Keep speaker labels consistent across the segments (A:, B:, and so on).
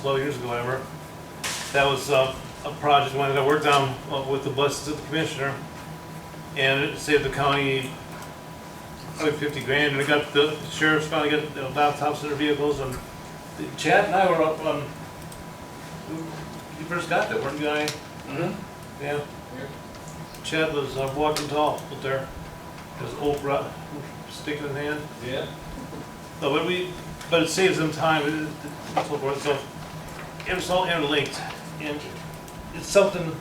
A: twelve years ago, ever. That was uh, a project one that I worked on uh, with the blessings of the commissioner. And it saved the county probably fifty grand, and we got the sheriffs finally got the laptops in their vehicles, and Chad and I were up on, you first got that, weren't you, guy?
B: Mm-hmm.
A: Yeah. Chad was uh, walking tall up there, his old rod, stick in hand.
B: Yeah.
A: No, but we, but it saves them time and and so forth, so it's all interlinked. And it's something,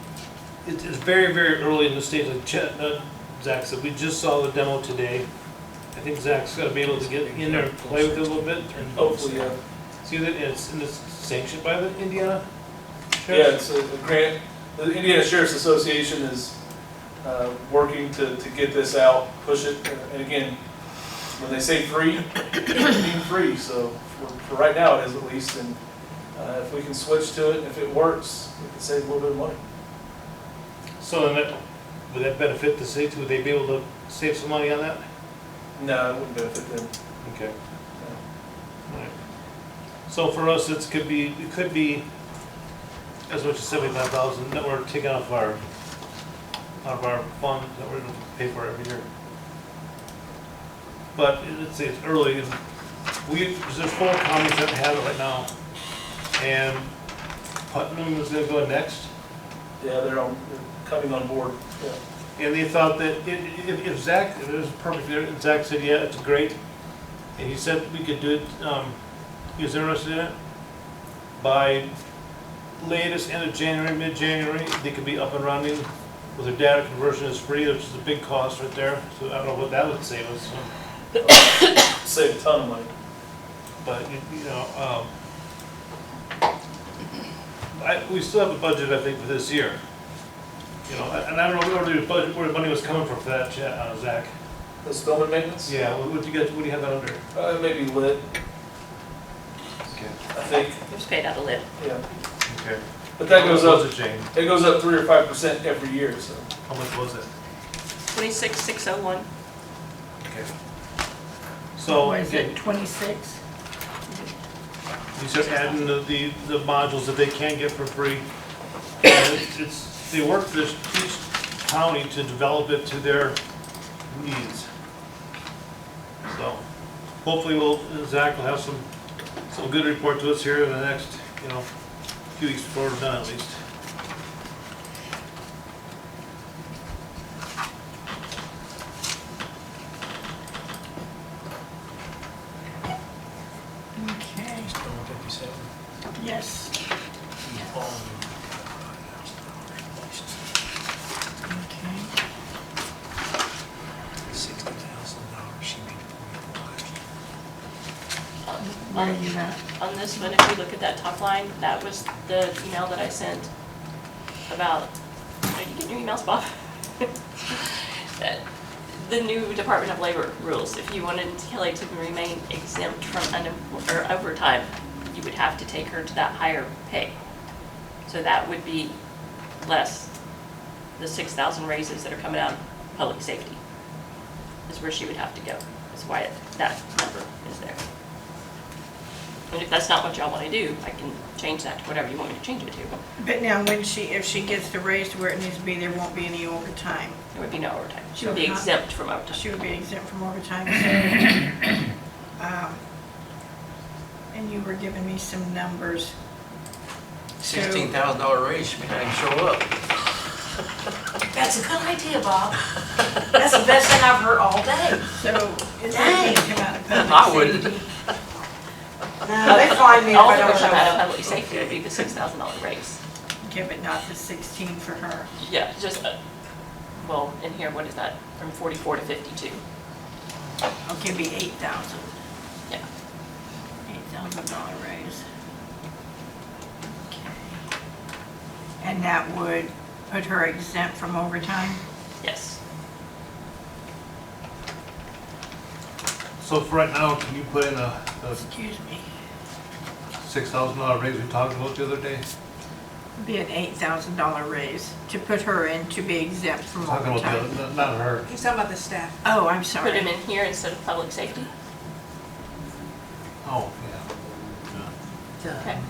A: it is very, very early in the stage, like Chet, uh, Zach said, we just saw the demo today. I think Zach's gonna be able to get in there and play with it a little bit and hopefully, uh, see that it's, and it's sanctioned by the Indiana
B: Yeah,
A: Sheriff's.
B: it's a a grant, the Indiana Sheriff's Association is, uh, working to, to get this out, push it, uh, and again, when they say free, it's being free, so for, for right now it is at least, and, uh, if we can switch to it, if it works, we can save a little bit of money.
A: So then that, would that benefit the city, would they be able to save some money on that?
B: No, it wouldn't benefit them. Uh,
A: Okay. Right. So for us, it's could be, it could be as much as seventy-five thousand that we're taking off our, out of our fund that we're gonna pay for every year. But it- it's, it's early, and we, there's four counties that have it right now. And Putnam is gonna go next,
B: Yeah, they're on, they're coming on board, yeah.
A: and they thought that i- i- if, if Zach, it was perfect, there, and Zach said, yeah, it's great. And he said we could do it, um, he was interested in it. By latest end of January, mid-January, they could be up and running with their data conversion is free, which is a big cost right there. So I don't know what that would save us,
B: Save a ton of money.
A: but, you you know, um, I, we still have a budget, I think, for this year. You know, and I don't know where the budget, where the money was coming from for that, Chet- uh, Zach.
B: The Spillman maintenance?
A: Yeah, what what do you get, what do you have that under?
B: Uh, maybe lit,
A: Okay.
B: I think,
C: It was paid out of lid.
B: yeah.
A: Okay.
B: But that goes up,
A: it, Jane?
B: it goes up three or five percent every year, so.
A: How much was it?
C: Twenty-six, six oh one.
A: Okay. So,
D: Or is it
A: again,
D: 26?
A: you start adding the, the the modules that they can get for free. And it's- It's, they work for this, each county to develop it to their needs. So, hopefully we'll, Zach will have some, some good report to us here in the next, you know, few weeks before we're done at least.
D: Okay, yes. Okay.
E: Sixty thousand dollars, she made forty-five.
D: Where are you at?
C: On this one, if you look at that top line, that was the email that I sent about, are you getting your emails, Bob? That- The new Department of Labor rules, if you wanted Kelly to remain exempt from unem- or overtime, you would have to take her to that higher pay. So that would be less the six thousand raises that are coming out of public safety. Is where she would have to go. That's why it- that number is there. And if that's not what y'all want to do, I can change that to whatever you want me to change it to.
D: But now, when she, if she gets the raise to where it needs to be, there won't be any overtime.
C: There would be no overtime. She would be
D: Okay.
C: exempt from overtime.
D: She would be exempt from overtime, so, um, and you were giving me some numbers. So-
E: Sixteen thousand dollar raise, she made, I can show up.
F: That's a good idea, Bob. That's the best thing I've heard all day.
D: So, is that gonna come out of public
E: I wouldn't.
D: safety?
F: No, they find me if
C: All
F: I
C: that would
F: don't
C: come out of
F: show up.
C: public safety would be the six thousand dollar raise.
D: Give it not the 16 for her.
C: Yeah, just, uh, well, in here, what is that? From forty-four to fifty-two.
D: Okay, it'd Oh, be 8,000.
C: Yeah.
D: Eight thousand dollar raise. And that would put her exempt from overtime?
C: Yes.
A: So for right now, can you put in a, a
D: Excuse me.
A: six thousand dollar raise we talked about the other day?
D: Be an eight thousand dollar raise to put her in to be exempt from
A: Talking about the,
D: overtime.
A: other- not- not her.
F: He's talking about the staff.
D: Oh, I'm
C: Put him
D: sorry.
C: in here instead of public safety.
A: Oh, yeah.
C: Okay.